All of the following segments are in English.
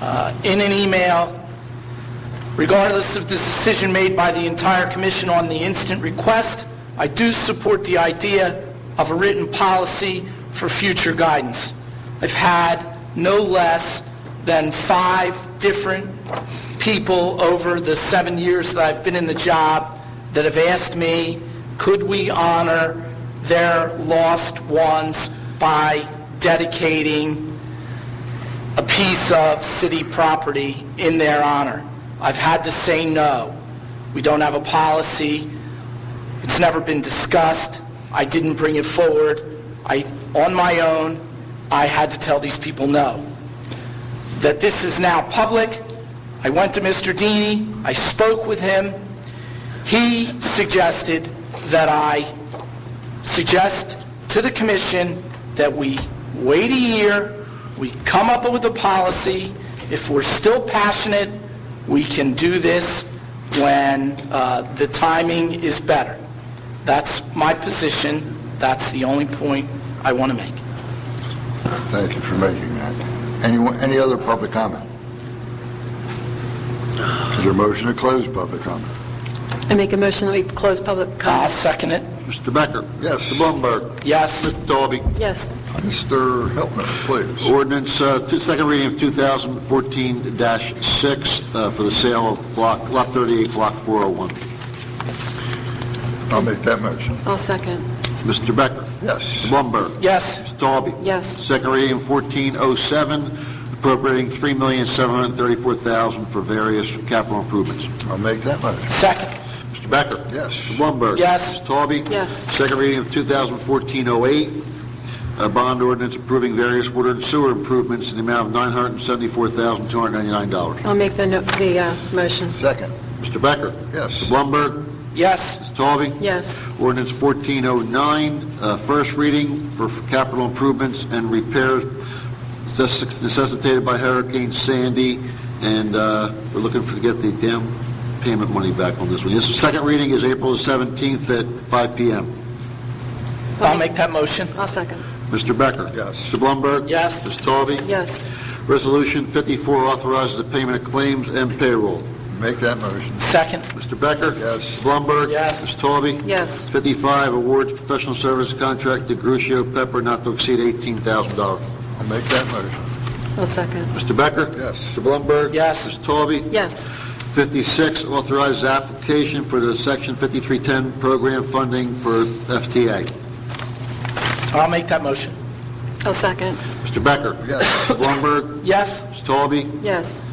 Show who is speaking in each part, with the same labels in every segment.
Speaker 1: uh, in an email, regardless of the decision made by the entire commission on the instant request, I do support the idea of a written policy for future guidance. I've had no less than five different people over the seven years that I've been in the job that have asked me, could we honor their lost ones by dedicating a piece of city property in their honor. I've had to say no. We don't have a policy. It's never been discussed. I didn't bring it forward. I, on my own, I had to tell these people no. That this is now public. I went to Mr. Deeney. I spoke with him. He suggested that I suggest to the commission that we wait a year, we come up with a policy. If we're still passionate, we can do this when uh, the timing is better. That's my position. That's the only point I want to make.
Speaker 2: Thank you for making that. Anyone, any other public comment? Is there a motion to close public comment?
Speaker 3: I make a motion that we close public
Speaker 1: I'll
Speaker 3: comment.
Speaker 1: second it.
Speaker 4: Mr. Becker?
Speaker 2: Yes.
Speaker 4: Mr. Blumberg?
Speaker 1: Yes.
Speaker 4: Mr. Dalby?
Speaker 3: Yes,
Speaker 2: Mr. Hiltner, please.
Speaker 4: Ordinance, uh, two- second reading of 2014-6 uh, for the sale of block, Lot 38, Block 401.
Speaker 2: I'll make that motion.
Speaker 3: I'll second.
Speaker 4: Mr. Becker? Mr.
Speaker 2: Yes.
Speaker 4: Blumberg?
Speaker 1: Yes.
Speaker 4: Mr. Dalby?
Speaker 3: Yes.
Speaker 4: Second reading of 1407, appropriating $3,734,000 for various capital improvements.
Speaker 2: I'll make that motion.
Speaker 1: Second.
Speaker 4: Mr. Becker?
Speaker 2: Yes.
Speaker 4: Mr. Blumberg?
Speaker 1: Yes.
Speaker 4: Mr. Talby?
Speaker 3: Yes.
Speaker 4: Second reading of 2014-08, a bond ordinance approving various water and sewer improvements in the amount of $974,299.
Speaker 3: I'll make the, no- the uh, motion.
Speaker 2: Second.
Speaker 4: Mr. Becker?
Speaker 2: Yes.
Speaker 4: Mr. Blumberg?
Speaker 1: Yes.
Speaker 4: Mr. Talby?
Speaker 3: Yes,
Speaker 4: Ordinance 1409, uh, first reading for capital improvements and repairs necess- necessitated by Hurricane Sandy, and uh, we're looking for to get the down payment money back on this one. This second reading is April the 17th at 5 PM.
Speaker 1: I'll make that motion.
Speaker 3: I'll second.
Speaker 4: Mr. Becker?
Speaker 2: Yes.
Speaker 4: Mr. Blumberg?
Speaker 1: Yes.
Speaker 4: Mr. Talby?
Speaker 3: Yes,
Speaker 4: Resolution 54 authorizes the payment of claims and payroll.
Speaker 2: Make that motion.
Speaker 1: Second.
Speaker 4: Mr. Becker?
Speaker 2: Yes.
Speaker 4: Mr. Blumberg?
Speaker 1: Yes.
Speaker 4: Mr. Talby?
Speaker 3: Yes.
Speaker 4: 55, awards professional service contract to Grucio Pepper not to exceed $18,000.
Speaker 2: I'll make that motion.
Speaker 3: I'll second.
Speaker 4: Mr. Becker?
Speaker 2: Yes.
Speaker 4: Mr. Blumberg?
Speaker 1: Yes.
Speaker 4: Mr. Talby?
Speaker 3: Yes,
Speaker 4: 56, authorizes application for the Section 5310 program funding for FTA.
Speaker 1: I'll make that motion.
Speaker 3: I'll second.
Speaker 4: Mr. Becker?
Speaker 2: Yes.
Speaker 4: Mr. Blumberg?
Speaker 1: Yes.
Speaker 4: Mr. Talby?
Speaker 3: Yes,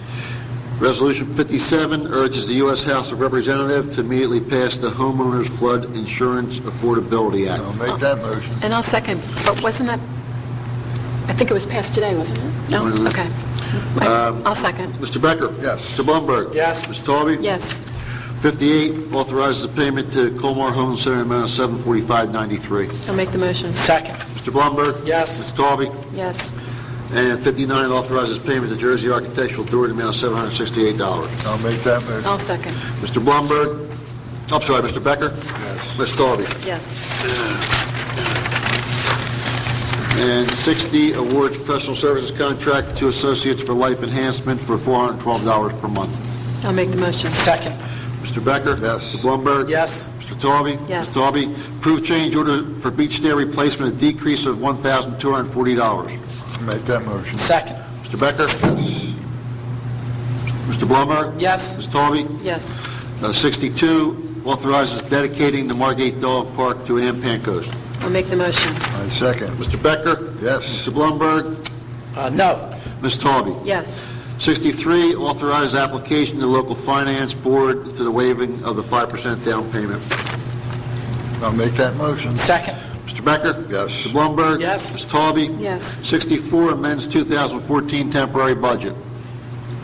Speaker 4: Resolution 57 urges the U.S. House of Representatives to immediately pass the Homeowners Flood Insurance Affordability Act.
Speaker 2: I'll make that motion.
Speaker 3: and I'll second, but wasn't that, I think it was passed today, wasn't it? No,
Speaker 4: Wasn't it?
Speaker 3: okay. I'll second.
Speaker 4: Mr. Becker?
Speaker 2: Yes.
Speaker 4: Mr. Blumberg?
Speaker 1: Yes.
Speaker 4: Mr. Talby?
Speaker 3: Yes,
Speaker 4: 58, authorizes the payment to Colmar Home Center in the amount of 745.93.
Speaker 3: I'll make the motion.
Speaker 1: Second.
Speaker 4: Mr. Blumberg?
Speaker 1: Yes.
Speaker 4: Mr. Talby?
Speaker 3: Yes,
Speaker 4: And 59, authorizes payment to Jersey Architectural Door in the amount of $768.
Speaker 2: I'll make that motion.
Speaker 3: I'll second.
Speaker 4: Mr. Blumberg? I'm sorry, Mr. Becker? Yes. Mr. Talby?
Speaker 3: Yes,
Speaker 4: And 60, awards professional services contract to Associates for Life Enhancement for $412 per month.
Speaker 3: I'll make the motion.
Speaker 1: Second.
Speaker 4: Mr. Becker?
Speaker 2: Yes.
Speaker 4: Mr. Blumberg?
Speaker 1: Yes.
Speaker 4: Mr. Talby?
Speaker 3: Yes.
Speaker 4: Mr. Talby, approve change order for beach stair replacement, a decrease of $1,240.
Speaker 2: I'll make that motion.
Speaker 1: Second.
Speaker 4: Mr. Becker? Mr. Blumberg?
Speaker 1: Yes.
Speaker 4: Ms. Talby?
Speaker 3: Yes,
Speaker 4: Uh, 62, authorizes dedicating the Margate Dog Park to Ampancos.
Speaker 3: I'll make the motion.
Speaker 2: I second.
Speaker 4: Mr. Becker?
Speaker 2: Yes.
Speaker 4: Mr. Blumberg?
Speaker 1: Uh, no.
Speaker 4: Ms. Talby?
Speaker 3: Yes,
Speaker 4: 63, authorize application to local finance board to the waiving of the 5% down payment.
Speaker 2: I'll make that motion.
Speaker 1: Second.
Speaker 4: Mr. Becker?
Speaker 2: Yes.
Speaker 4: Mr. Blumberg?
Speaker 1: Yes.
Speaker 4: Ms. Talby?
Speaker 3: Yes.
Speaker 4: 64, amends 2014 temporary budget.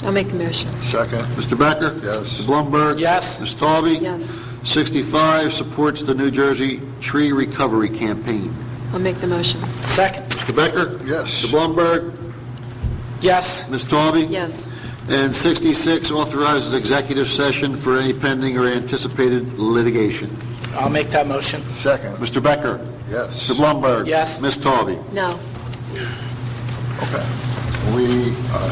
Speaker 3: I'll make the motion.
Speaker 2: Second.
Speaker 4: Mr. Becker?
Speaker 2: Yes.
Speaker 4: Mr. Blumberg?
Speaker 1: Yes.
Speaker 4: Ms. Talby?
Speaker 3: Yes,
Speaker 4: 65, supports the New Jersey Tree Recovery Campaign.
Speaker 3: I'll make the motion.
Speaker 1: Second.
Speaker 4: Mr. Becker?
Speaker 2: Yes.
Speaker 4: Mr. Blumberg?
Speaker 1: Yes.
Speaker 4: Ms. Talby?
Speaker 3: Yes,
Speaker 4: And 66, authorizes executive session for any pending or anticipated litigation.
Speaker 1: I'll make that motion.
Speaker 2: Second.
Speaker 4: Mr. Becker?
Speaker 2: Yes.
Speaker 4: Mr. Blumberg?
Speaker 1: Yes.
Speaker 4: Ms. Talby?
Speaker 3: no.
Speaker 2: Okay. We, uh,